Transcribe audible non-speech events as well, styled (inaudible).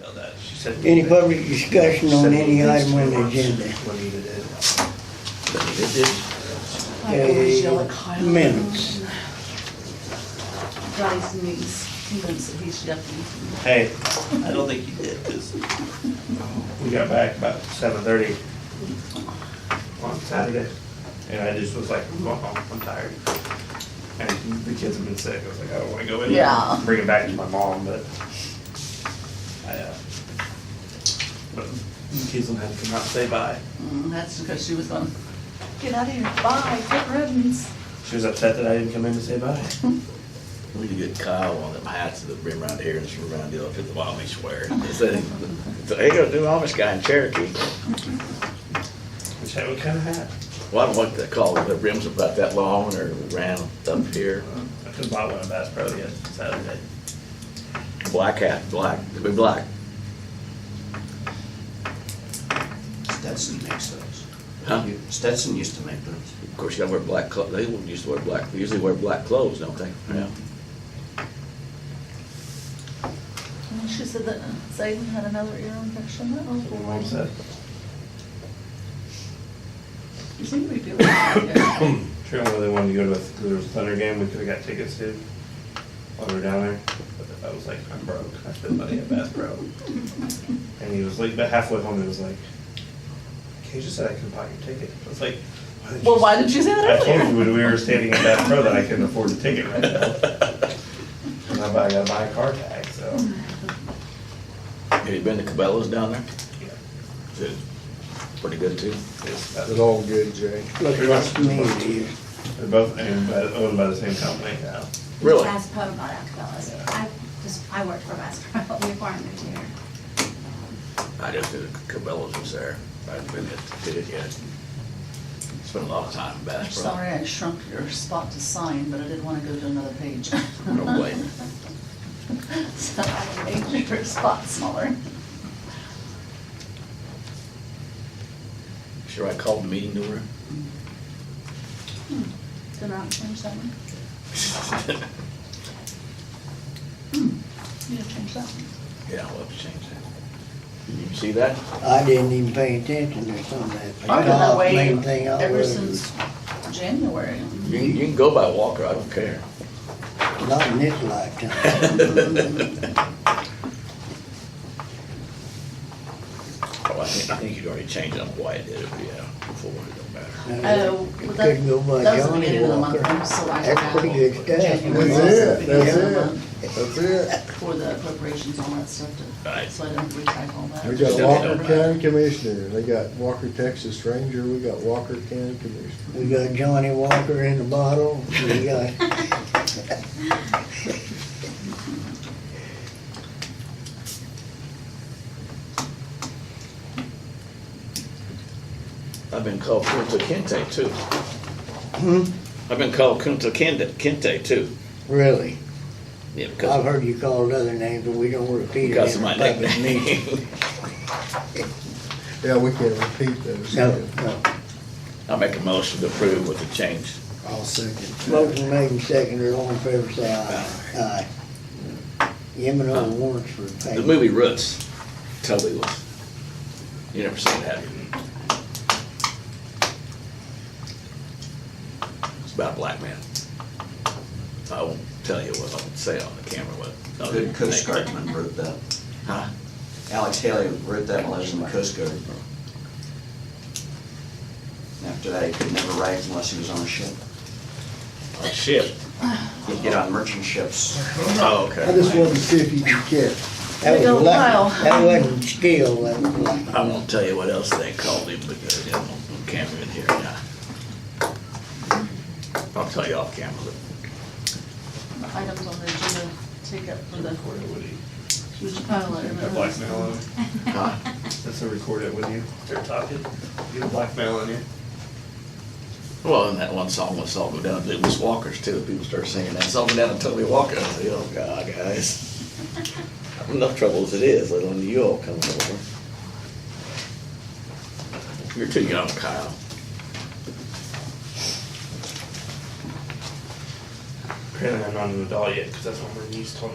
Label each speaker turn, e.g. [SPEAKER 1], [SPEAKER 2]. [SPEAKER 1] know that. She said.
[SPEAKER 2] Any public discussion
[SPEAKER 1] She
[SPEAKER 2] on
[SPEAKER 1] said
[SPEAKER 2] any
[SPEAKER 1] at least
[SPEAKER 2] item on
[SPEAKER 1] two
[SPEAKER 2] the
[SPEAKER 1] months
[SPEAKER 2] agenda?
[SPEAKER 1] When needed it. But it is-
[SPEAKER 3] I always yell at Kyle.
[SPEAKER 2] Uh, Minutes.
[SPEAKER 3] Johnny's niece, he thinks that he's yucky.
[SPEAKER 1] Hey, I don't think you did, because we got back about seven thirty on Saturday, and I just was like, I'm going home, I'm tired. And the kids have been sick, I was like, I don't wanna go in there,
[SPEAKER 3] Yeah.
[SPEAKER 1] and bring it back to my mom, but I, uh, but the kids will have to come out and say bye.
[SPEAKER 3] Mm, That's because she was on, get out of here, bye, get ribbons.
[SPEAKER 1] She was upset that I didn't come in to say bye.
[SPEAKER 4] We need to get Kyle one of them hats that bring around here and from around the office, the Amish wear. It's a- it's a- There you go, new Amish guy in Cherokee.
[SPEAKER 1] Which, what kind of hat?
[SPEAKER 4] Well, I don't know what they call it, the rims about that long or round up here.
[SPEAKER 1] I could've bought one of Bass Pro yesterday, Saturday.
[SPEAKER 4] Black hat, black, it'd be black.
[SPEAKER 5] Stetson makes those.
[SPEAKER 4] Huh?
[SPEAKER 5] Stetson used to make those.
[SPEAKER 4] Of course, you gotta wear black clo, they used to wear black, they usually wear black clothes, don't they? Yeah.
[SPEAKER 3] And she said that uh, Zayden had another ear infection, Oh,
[SPEAKER 1] That's
[SPEAKER 3] that was
[SPEAKER 1] what my mom said.
[SPEAKER 3] You seem to be doing that.
[SPEAKER 1] Sure, well, they wanted to go to the there was a Thunder game, we could've got tickets to, while we were down there, but I was like, I'm broke, I spent money at Bass
[SPEAKER 3] (laughs)
[SPEAKER 1] Pro. And he was like, but halfway home, he was like, Kay just said I couldn't buy your ticket, I was like, why did you?
[SPEAKER 3] Well, why didn't you say
[SPEAKER 1] I
[SPEAKER 3] that
[SPEAKER 1] told you
[SPEAKER 3] earlier?
[SPEAKER 1] when we
[SPEAKER 3] (laughs)
[SPEAKER 1] were standing at Bass Pro that I couldn't afford a ticket right now. And I bu- I gotta buy a car tag, so,
[SPEAKER 4] Have you been to Cabela's down there?
[SPEAKER 1] yeah.
[SPEAKER 4] It's Pretty good too.
[SPEAKER 1] it's about-
[SPEAKER 6] It's all good, Jay.
[SPEAKER 2] Look
[SPEAKER 1] Pretty
[SPEAKER 2] at
[SPEAKER 1] much.
[SPEAKER 2] me here.
[SPEAKER 1] They're both owned by, owned by the same company now.
[SPEAKER 4] Really?
[SPEAKER 7] Bass Pro bought out Cabela's. I just, I worked for Bass Pro (laughs) before I moved here.
[SPEAKER 4] I just did Cabela's was there. I haven't been to did it yet. Spent a lot of time in
[SPEAKER 3] I'm
[SPEAKER 4] Bass Pro.
[SPEAKER 3] sorry I shrunk your spot to sign, but I didn't want to go to another page.
[SPEAKER 4] No way.
[SPEAKER 3] (laughs) So I made your spot smaller.
[SPEAKER 4] Sure, I called the meeting to her.
[SPEAKER 3] Did not change that one? You didn't change that one.
[SPEAKER 4] Yeah, I'll have to change that. You see that?
[SPEAKER 2] I didn't even pay attention to some of that.
[SPEAKER 3] I've been that
[SPEAKER 2] Golf,
[SPEAKER 3] way
[SPEAKER 2] main thing I
[SPEAKER 3] ever
[SPEAKER 2] was-
[SPEAKER 3] since January.
[SPEAKER 4] You, you can go by Walker, I don't care. (laughs)
[SPEAKER 2] Not in this
[SPEAKER 3] (laughs)
[SPEAKER 2] lifetime.
[SPEAKER 4] Oh, I think, I think you'd already changed on why I did it, but yeah, before, it don't matter.
[SPEAKER 3] Oh,
[SPEAKER 2] It
[SPEAKER 3] well,
[SPEAKER 2] Could
[SPEAKER 3] that,
[SPEAKER 2] go by
[SPEAKER 3] that was the
[SPEAKER 2] Johnny
[SPEAKER 3] beginning of the month,
[SPEAKER 2] Walker.
[SPEAKER 3] I'm so I
[SPEAKER 2] That's
[SPEAKER 3] have
[SPEAKER 2] pretty good stuff.
[SPEAKER 3] January
[SPEAKER 6] That's
[SPEAKER 3] was the
[SPEAKER 6] it,
[SPEAKER 3] beginning of the
[SPEAKER 6] that's it.
[SPEAKER 3] month
[SPEAKER 6] That's it.
[SPEAKER 3] for the appropriations, all that stuff, to-
[SPEAKER 4] Right.
[SPEAKER 3] so I didn't retype all that.
[SPEAKER 6] We got
[SPEAKER 4] Yeah.
[SPEAKER 6] Walker County Commissioner, they got Walker Texas Ranger, we got Walker County Commissioner.
[SPEAKER 2] We got Johnny Walker in the bottle, we got,
[SPEAKER 3] (laughs)
[SPEAKER 4] I've been called Kunta Kinte too.
[SPEAKER 2] hmm,
[SPEAKER 4] I've been called Kunta Kinte, Kinte too.
[SPEAKER 2] really?
[SPEAKER 4] Yeah,
[SPEAKER 2] I've
[SPEAKER 4] because,
[SPEAKER 2] heard you called other names, but we don't repeat
[SPEAKER 4] because
[SPEAKER 2] it
[SPEAKER 4] of
[SPEAKER 2] in a
[SPEAKER 4] my
[SPEAKER 2] public meeting.
[SPEAKER 4] nickname.
[SPEAKER 6] Yeah, we can't repeat those.
[SPEAKER 2] No, no.
[SPEAKER 4] (laughs) I make a motion to approve with the change.
[SPEAKER 6] I'll second.
[SPEAKER 2] Motion made and seconded, all in favor, say aye. Aye. M and O warrants for
[SPEAKER 4] The
[SPEAKER 2] payment.
[SPEAKER 4] movie Roots, totally was, you never seen that. It's about a black man. I won't tell you what, I won't say on the camera what. no,
[SPEAKER 5] Good Coast
[SPEAKER 4] they-
[SPEAKER 5] Guardman wrote that.
[SPEAKER 4] Huh?
[SPEAKER 5] Alex Haley wrote that while I was in the Coast Guard. And After that, he could never write unless he was on a ship.
[SPEAKER 4] Oh, shit.
[SPEAKER 5] He'd get on merchant ships.
[SPEAKER 4] Oh, okay.
[SPEAKER 6] I just wanted to see if you could catch.
[SPEAKER 2] That was
[SPEAKER 3] Big old
[SPEAKER 2] luck.
[SPEAKER 3] pile.
[SPEAKER 2] That wasn't skill, that was luck.
[SPEAKER 4] I won't tell you what else they called him, but there's no no camera in here. yeah. I'll tell you off camera.
[SPEAKER 3] Items on the agenda, take up for the
[SPEAKER 1] Record it with you.
[SPEAKER 3] huge pile of
[SPEAKER 1] They're
[SPEAKER 3] minutes.
[SPEAKER 1] blackmailing.
[SPEAKER 7] (laughs)
[SPEAKER 4] Huh?
[SPEAKER 1] That's a record it with you. They're talking. You have blackmail on you.
[SPEAKER 4] Well, and that one song was all go down, it was Walker's too, people started singing that, song go down and Toby Walker, I said, oh God, guys. I'm in Enough trouble as it is, let alone you all coming over. You're too young, Kyle.
[SPEAKER 1] Apparently, I'm not an adult yet because that's what my niece told me.